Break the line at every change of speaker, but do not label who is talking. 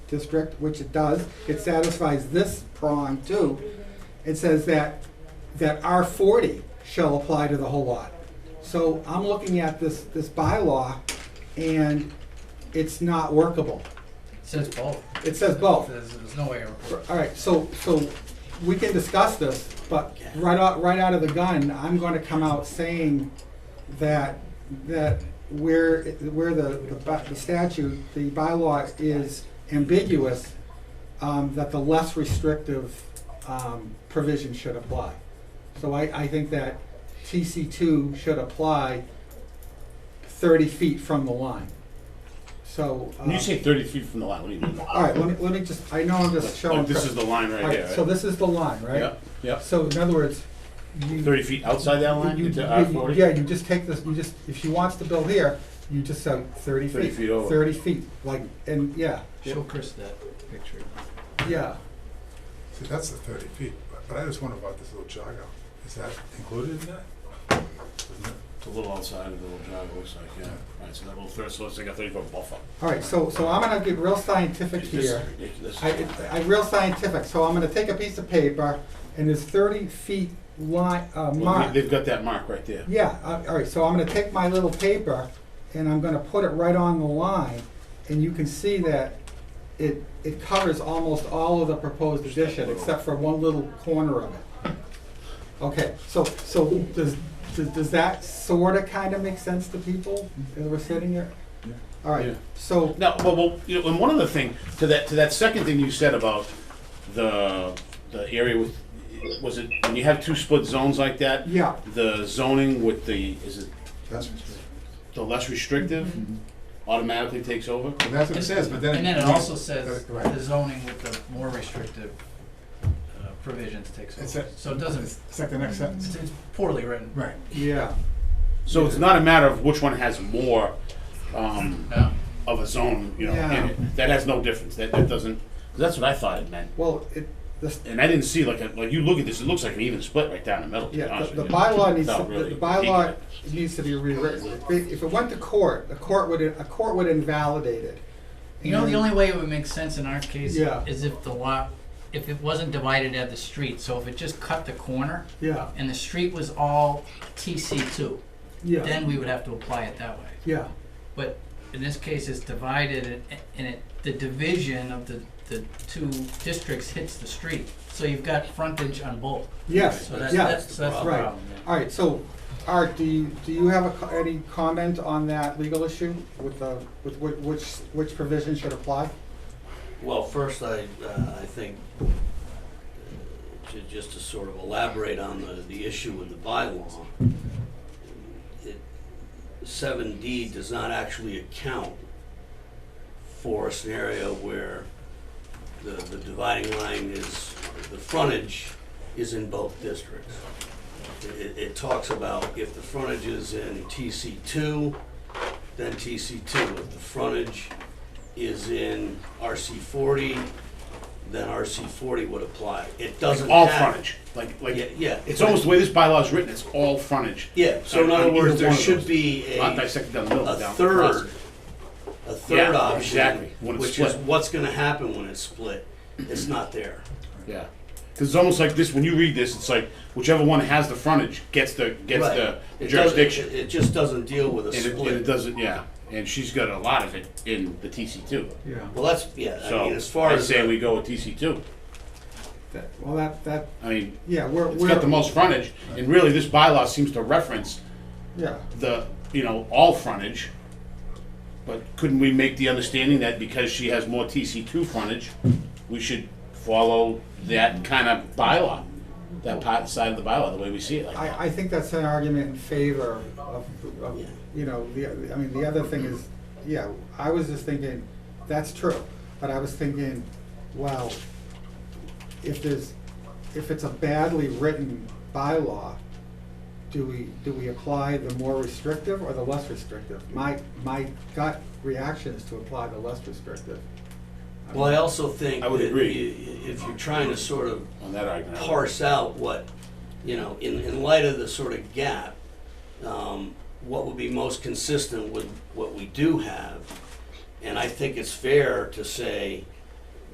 district, which it does, it satisfies this prong too. It says that, that R forty shall apply to the whole lot. So I'm looking at this, this bylaw and it's not workable.
Says both.
It says
Oh.
both.
There's, there's no way. around it.
All right, so, so we can discuss this, but right out, right out of the gun, I'm gonna come out saying that, that where, where the, the bu- the statute, the bylaw is ambiguous, um, that the less restrictive, um, provision should apply. So I, I think that TC two should apply thirty feet from the line. So.
When you
um,
say thirty feet from the line, what do you mean?
All right, let me, let me just, I know I'm just showing.
Like, oh, this is the line right
Right,
here, right?
So this is the line, right?
Yep, yep.
So in other words, you.
Thirty feet outside that line
you-
into
you-
R forty?
Yeah, you just take this, you just, if she wants to build here, you just say thirty feet.
30 feet over.
Thirty feet, like, and, yeah,
Show Chris that picture.
yeah.
See, that's the thirty feet, but- but I just wonder about this little jog out. Is that included in that? Isn't it?
It's a little outside of the little drive, it looks like, yeah. Right, so that little third, so it's like a thirty foot buffer.
All right, so, so I'm gonna get real scientific
This is
here.
ridiculous.
I, I, I'm real scientific, so I'm gonna take a piece of paper and there's thirty feet line, uh,
Well,
mark.
they- They've got that mark right there.
Yeah, uh, all right, so I'm gonna take my little paper and I'm gonna put it right on the line, and you can see that it, it covers almost all of the proposed addition, except for one little corner of it. Okay, so, so does, does, does that sorta kinda make sense to people as we're sitting here? All
Yeah.
right, so,
Now, well, well, you know, and one other thing, to that, to that second thing you said about the, the area with, was it, when you have two split zones like that?
yeah,
The zoning with the, is it
That's what it says.
the less restrictive
Mm-hmm.
automatically takes over?
And that's what it says, but then.
And then it also says
Uh, right.
the zoning with the more restrictive uh, provisions takes
It's
over.
a-
So it doesn't, it's
It's like the next sentence.
it's poorly written.
Right.
yeah,
So it's not a matter of which one has more, um,
No,
of a zone, you know,
Yeah.
in it. That has no difference. That, that doesn't, 'cause that's what I thought it meant.
well, it, the,
And I didn't see like, a, like you look at this, it looks like an even split right down the middle, to be
Yeah,
honest
the, the
with you.
bylaw needs,
Without
to-
really
the bylaw
peeking at it.
needs to be rewritten. If if it went to court, the court would, a court would invalidate it.
you know, the
And-
only way it would make sense in our case
Yeah.
is if the lot, if it wasn't divided at the street. So if it just cut the corner
Yeah,
and the street was all TC two,
yeah,
then we would have to apply it that way.
yeah,
But in this case, it's divided and- and it, the division of the, the two districts hits the street. So you've got frontage on both.
yes,
So that's,
yeah.
that's, that's the
Right.
problem. yeah.
All right, so, Art, do you, do you have a co- any comment on that legal issue with the, with whi- which, which provision should apply?
Well, first, I, uh, I think, uh, ju- just to sort of elaborate on the, the issue in the bylaw, it, seven D does not actually account for a scenario where the, the dividing line is, the frontage is in both districts. It, it talks about if the frontage is in TC two, then TC two. If the frontage is in RC forty, then RC forty would apply. It doesn't
all
have-
frontage, like, like,
Yeah, yeah.
it's almost the way this bylaw is written, it's all frontage.
Yeah, so in
On- on
other words,
either
there
one of
should
those.
be a.
Not dissected down the middle,
a
down.
third, a third
Yeah,
option.
exactly, when it's
Which is
split.
what's gonna happen when it's split, it's not there.
Yeah, because it's almost like this, when you read this, it's like whichever one has the frontage gets the, gets
Right.
the
It doesn't-
jurisdiction.
It it just doesn't deal with a
And it, and it
split.
doesn't, yeah, and she's got a lot of it in the TC two.
Yeah.
Well, that's, yeah, I
So,
mean, as far
I'd
as,
say we go with TC two.
Well, that, that,
I mean,
yeah, we're,
it's got the
we're,
most frontage, and really, this bylaw seems to reference
yeah,
the, you know, all frontage. But couldn't we make the understanding that because she has more TC two frontage, we should follow that kind of bylaw? That part, side of the bylaw, the way we see it like that?
I, I think that's an argument in favor of, of, you know, the, I mean, the other thing is, yeah, I was just thinking, that's true, but I was thinking, well, if there's, if it's a badly written bylaw, do we, do we apply the more restrictive or the less restrictive? My, my gut reaction is to apply the less restrictive.
well, I also think
I would
that
agree.
i- If you're trying to sort of
On that argument. I would-
parse out what, you know, in, in light of the sort of gap, um, what would be most consistent with what we do have. And I think it's fair to say